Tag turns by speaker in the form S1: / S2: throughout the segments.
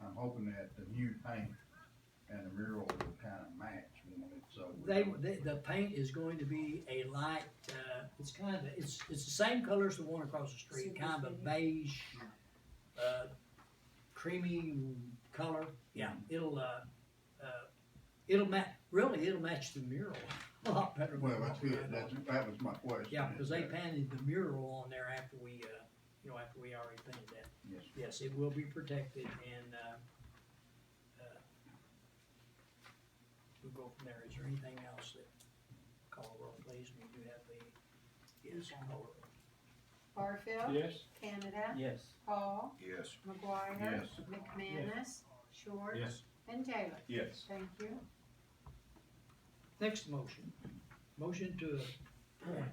S1: I'm hoping that the new paint and the mural will kinda match when it's over.
S2: They, the, the paint is going to be a light, uh, it's kind of, it's, it's the same color as the one across the street,
S3: Silver
S2: kind of a
S3: shading.
S2: beige, uh, creamy color. Yeah, it'll, uh, uh, it'll ma, really, it'll match the mural a lot better. than
S1: Well, that's
S2: what we
S1: good,
S2: had
S1: that's,
S2: on.
S1: that was my question.
S2: Yeah, cause
S1: is
S2: they
S1: that-
S2: painted the mural on there after we, uh, you know, after we already painted that.
S1: Yes,
S2: Yes, it will be protected and, uh, uh, we'll go from there. Is there anything else that, call roll please, we do have the, yes, call roll.
S3: Barfield.
S4: Yes.
S3: Canada.
S4: Yes.
S3: Paul.
S5: Yes.
S3: McGuire.
S1: Yes.
S3: McManus. Short. And Taylor.
S5: Yes.
S3: Thank you.
S2: Next motion, motion to appoint.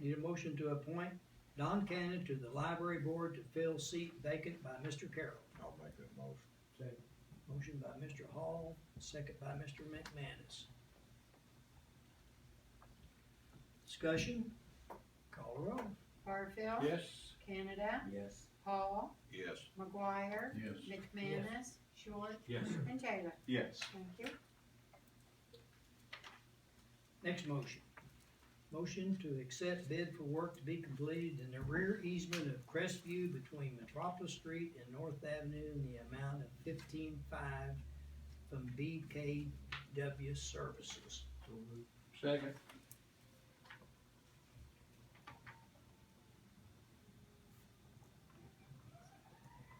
S2: Need a motion to appoint Don Cannon to the library board to fill seat vacant by Mr. Carroll.
S5: I'll make that motion.
S2: Motion by Mr. Hall, second by Mr. McManus. Discussion, call the roll.
S3: Barfield.
S4: Yes.
S3: Canada.
S4: Yes.
S3: Paul.
S5: Yes.
S3: McGuire.
S1: yes.
S3: McManus. Short.
S4: Yes.
S3: And Taylor.
S5: Yes.
S3: Thank you.
S2: Next motion. Motion to accept bid for work to be completed in the rear easement of Crestview between Metropolis Street and North Avenue in the amount of fifteen-five from BKW Services.
S4: Second.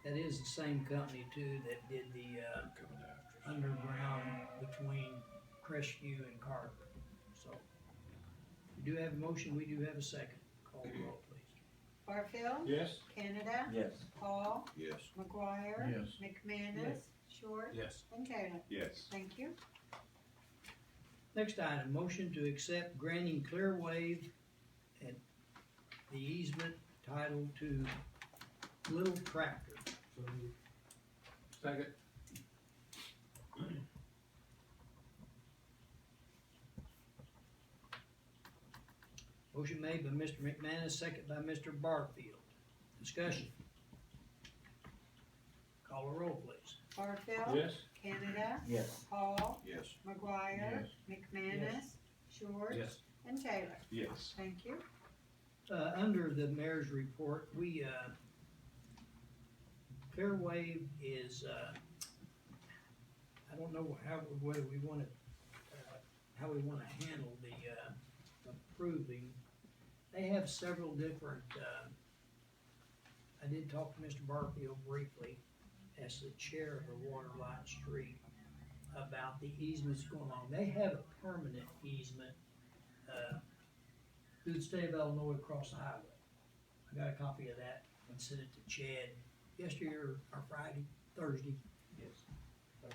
S2: That is the same company too that did the, uh,
S5: I'm coming after.
S2: underground between Crestview and Carver. So, we do have a motion, we do have a second. Call the roll, please.
S3: Barfield.
S4: Yes.
S3: Canada.
S4: Yes.
S3: Paul.
S5: Yes.
S3: McGuire.
S1: Yes.
S3: McManus. Short.
S5: Yes.
S3: And Taylor.
S5: Yes.
S3: Thank you.
S2: Next item, motion to accept granting clear wave and the easement title to Little Tractor.
S4: Second.
S2: Motion made by Mr. McManus, second by Mr. Barfield. Discussion. Call the roll, please.
S3: Barfield.
S4: Yes.
S3: Canada.
S4: Yes.
S3: Paul.
S5: Yes.
S3: McGuire. McManus. Short. And Taylor.
S5: Yes.
S3: Thank you.
S2: Uh, under the mayor's report, we, uh, Clearwave is, uh, I don't know how, whether we wanna, uh, how we wanna handle the, uh, approving. They have several different, uh, I did talk to Mr. Barfield briefly as the chair of the Waterline Street about the easements going on. They have a permanent easement, uh, through the state of Illinois across the highway. I got a copy of that and sent it to Chad yesterday or or Friday, Thursday.
S4: Yes.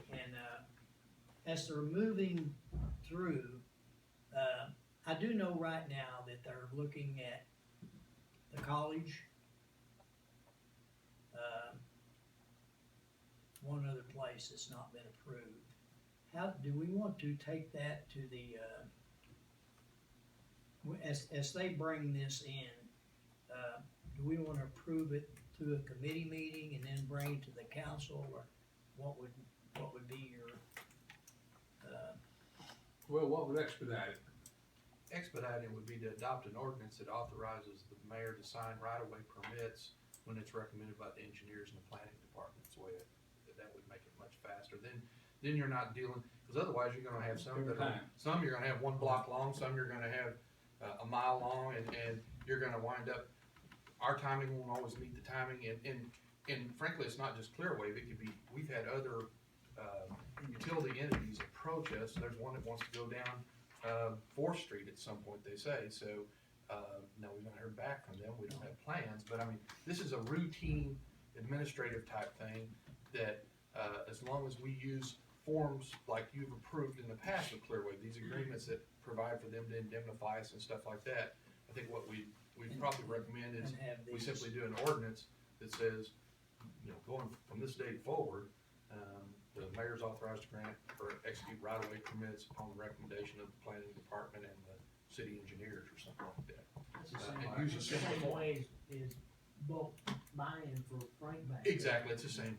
S2: And, uh, as they're moving through, uh, I do know right now that they're looking at the college. um, One other place that's not been approved. How, do we want to take that to the, uh, w- as, as they bring this in, uh, do we wanna approve it through a committee meeting and then bring it to the council, or what would, what would be your, uh,
S6: Well, what would expedite it?
S7: expedited would be to adopt an ordinance that authorizes the mayor to sign right-of-way permits when it's recommended by the engineers and the planning department, so that, that would make it much faster, then, then you're not dealing, cause otherwise you're gonna have some that are,
S4: Time.
S7: some you're gonna have one block long, some you're gonna have uh, a mile long, and, and you're gonna wind up, our timing won't always meet the timing, and, and, and frankly, it's not just Clearwave, it could be, we've had other, uh, utility entities approach us, there's one that wants to go down uh, Fourth Street at some point, they say, so, uh, no, we've not heard back from them, we don't have plans, but I mean, this is a routine administrative type thing that, uh, as long as we use forms like you've approved in the past with Clearway, these agreements that provide for them to indemnify us and stuff like that, I think what we, we probably recommend is
S2: and have
S7: we
S2: these?
S7: simply do an ordinance that says, you know, going from this date forward, um, the mayor's authorized to grant or execute right-of-way permits upon the recommendation of the planning department and the city engineers or something like that.
S8: It's the
S7: Uh,
S8: same,
S7: and use a
S8: it's the
S7: simple
S8: same
S7: form.
S8: way as, is bulk buying for Frank Bank.
S7: Exactly, it's the same